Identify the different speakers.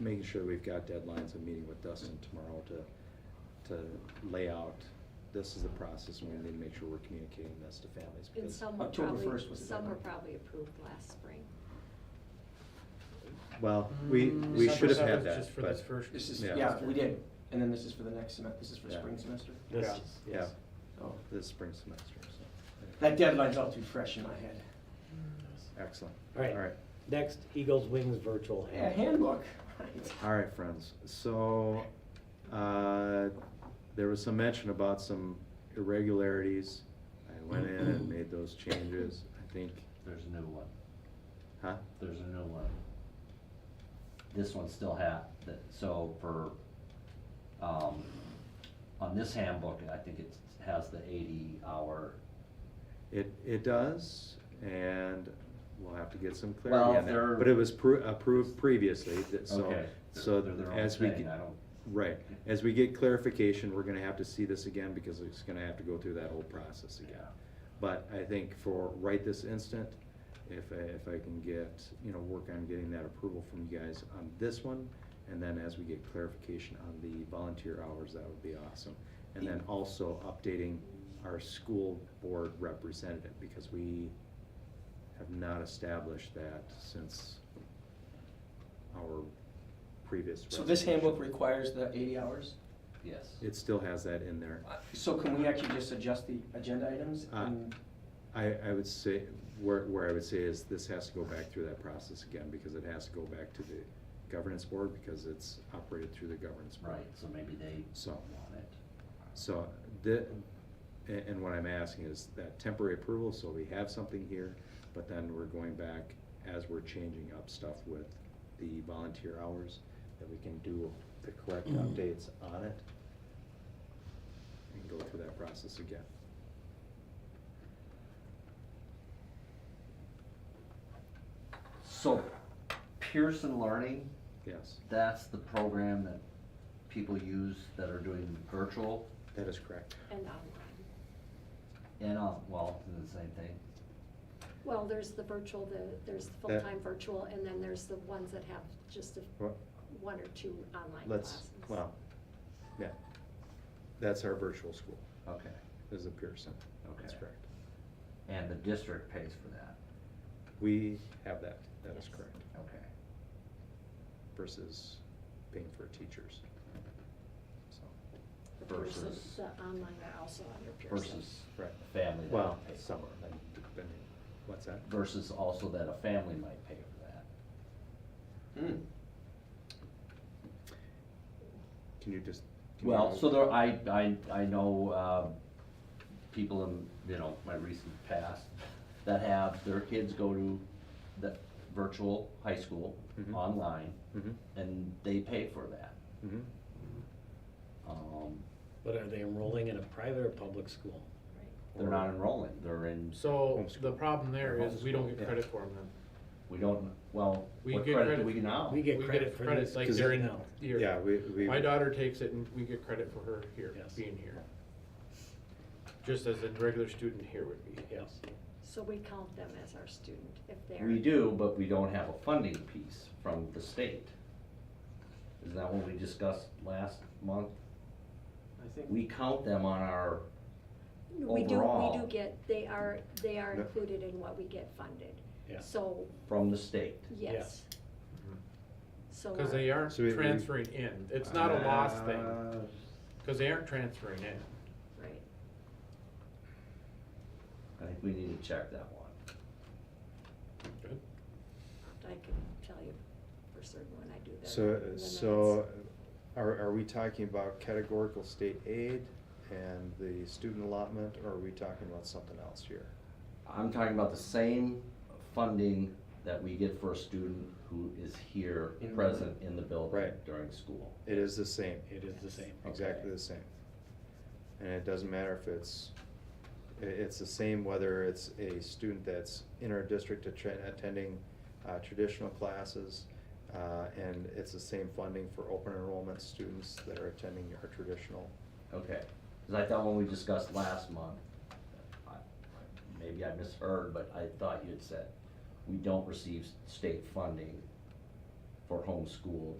Speaker 1: making sure we've got deadlines and meeting with Dustin tomorrow to, to lay out, this is the process, and we need to make sure we're communicating this to families.
Speaker 2: And
Speaker 1: because
Speaker 2: some were
Speaker 1: October
Speaker 2: probably,
Speaker 1: 1st was the
Speaker 2: some were
Speaker 1: deadline.
Speaker 2: probably approved last spring.
Speaker 1: Well, we, we
Speaker 3: December
Speaker 1: should
Speaker 3: seventh,
Speaker 1: have had that,
Speaker 3: Mm. just for this
Speaker 1: but,
Speaker 3: first.
Speaker 4: This is,
Speaker 1: Yeah.
Speaker 4: Mm. yeah, we did, and then this is for the next semester, this is for
Speaker 1: Yeah.
Speaker 4: spring semester,
Speaker 3: This-
Speaker 5: Yeah.
Speaker 1: yeah,
Speaker 4: so.
Speaker 1: this spring semester, so.
Speaker 4: That deadline's all too fresh in my head.
Speaker 1: Excellent.
Speaker 3: All right.
Speaker 1: All right.
Speaker 3: Next, Eagles Wings Virtual
Speaker 4: Yeah,
Speaker 3: Hand.
Speaker 4: handbook, right.
Speaker 1: All right, friends, so, uh, there was some mention about some irregularities. I went in and made those changes, I think,
Speaker 6: There's a new one,
Speaker 1: huh?
Speaker 6: there's a new one. This one still had, that, so for, um, on this handbook, I think it has the eighty hour.
Speaker 1: It, it does, and we'll have to get some
Speaker 6: Well,
Speaker 1: clarity on
Speaker 6: they're-
Speaker 1: that. But it was pro- approved previously, that- so,
Speaker 6: Okay, they're-
Speaker 1: so
Speaker 6: they're their own
Speaker 1: as we,
Speaker 6: thing,
Speaker 1: get-
Speaker 6: I don't,
Speaker 1: right. As we get clarification, we're gonna have to see this again because it's gonna have to go through that whole process again.
Speaker 6: yeah.
Speaker 1: But I think for right this instant, if, I- if I can get, you know, work on getting that approval from you guys on this one, and then as we get clarification on the volunteer hours, that would be awesome. And then also updating our school board representative, because we have not established that since our previous.
Speaker 4: So this handbook
Speaker 1: resolution.
Speaker 4: requires the eighty hours,
Speaker 6: Yes.
Speaker 1: It still has that in there.
Speaker 4: Uh, so can we actually just adjust the agenda items?
Speaker 1: Uh,
Speaker 4: and-
Speaker 1: I, I would say, where, where I would say is this has to go back through that process again, because it has to go back to the governance board, because it's operated through the governance board.
Speaker 6: Right, so maybe they
Speaker 1: So.
Speaker 6: want it.
Speaker 1: So the, and, and what I'm asking is that temporary approval, so we have something here, but then we're going back as we're changing up stuff with the volunteer hours, that we can do the correct updates on it. And go through that process again.
Speaker 6: So Pearson Learning,
Speaker 1: Yes,
Speaker 6: that's the program that people use that are doing virtual
Speaker 1: that is correct.
Speaker 2: And online.
Speaker 6: and, on- well, it's the same thing.
Speaker 2: Well, there's the virtual, the, there's the
Speaker 1: That-
Speaker 2: full-time virtual, and then there's the ones that have just a,
Speaker 1: Well-
Speaker 2: one or two online
Speaker 1: Let's,
Speaker 2: classes.
Speaker 1: well, yeah. That's our virtual school,
Speaker 6: Okay,
Speaker 1: is a Pearson. That's
Speaker 6: Okay.
Speaker 1: correct.
Speaker 6: and the district pays for that,
Speaker 1: We have that, that is
Speaker 2: Yes.
Speaker 1: correct,
Speaker 6: okay.
Speaker 1: versus paying for teachers. So,
Speaker 2: The person-
Speaker 6: versus-
Speaker 2: The online are also under Pearson.
Speaker 6: versus
Speaker 1: Right.
Speaker 6: family. that
Speaker 1: Well,
Speaker 6: might pay
Speaker 1: some
Speaker 6: for
Speaker 1: are,
Speaker 6: it.
Speaker 1: and depending, what's that?
Speaker 6: Versus also that a family might pay for that.
Speaker 4: Hmm.
Speaker 1: Can you just? can you-
Speaker 6: Well, so there, I, I, I know, um, people in, you know, my recent past that have their kids go to the virtual high school
Speaker 1: Mhm.
Speaker 6: online
Speaker 1: Mhm,
Speaker 6: and they pay for that.
Speaker 1: mhm.
Speaker 6: Um,
Speaker 3: But are they enrolling in a private or public school?
Speaker 6: they're not enrolling, they're in,
Speaker 5: So
Speaker 1: Homeschool.
Speaker 5: the problem there is we don't
Speaker 1: Yeah.
Speaker 5: get credit for them then.
Speaker 6: we don't, well,
Speaker 5: We
Speaker 6: what
Speaker 5: get
Speaker 6: credit do
Speaker 5: credit-
Speaker 6: we
Speaker 4: Oh.
Speaker 6: now?
Speaker 3: We get
Speaker 5: We
Speaker 3: credit for
Speaker 5: credit,
Speaker 3: these.
Speaker 5: Like
Speaker 1: 'Cause
Speaker 5: they're
Speaker 3: during
Speaker 5: in
Speaker 3: now.
Speaker 5: here.
Speaker 1: Yeah, we, we.
Speaker 5: My daughter takes it and we get credit for her here,
Speaker 3: Yes.
Speaker 5: being here. Just as a regular student here would be.
Speaker 3: Yes.
Speaker 2: So we count them as our student if they're.
Speaker 6: We do, but we don't have a funding piece from the state. Isn't that what we discussed last month?
Speaker 4: I think.
Speaker 6: We count them on our,
Speaker 2: We do, we do
Speaker 6: Overall.
Speaker 2: get, they are, they are
Speaker 1: Yeah.
Speaker 2: included in what we get funded.
Speaker 3: Yeah.
Speaker 2: So,
Speaker 6: from the state.
Speaker 2: yes. So.
Speaker 5: Cause
Speaker 2: our-
Speaker 5: they aren't
Speaker 1: So we- Uh, we-
Speaker 5: transferring in. It's not a loss thing, cause they aren't transferring in.
Speaker 2: Right.
Speaker 6: I think we need to check that one.
Speaker 5: Good.
Speaker 2: I can tell you for certain when I do that.
Speaker 1: So,
Speaker 2: in the
Speaker 1: so
Speaker 2: minutes.
Speaker 1: are, are we talking about categorical state aid and the student allotment, or are we talking about something else here?
Speaker 6: I'm talking about the same funding that we get for a student who is here,
Speaker 4: In the
Speaker 6: present in the building
Speaker 1: Right.
Speaker 6: during school.
Speaker 1: It is the same.
Speaker 3: It is the same.
Speaker 1: exactly
Speaker 6: Okay.
Speaker 1: the same. And it doesn't matter if it's, i- it's the same whether it's a student that's in our district attr- attending uh, traditional classes, uh, and it's the same funding for open enrollment students that are attending our traditional.
Speaker 6: Okay, because I thought when we discussed last month, I- maybe I misheard, but I thought you had said, we don't receive state funding for homeschooled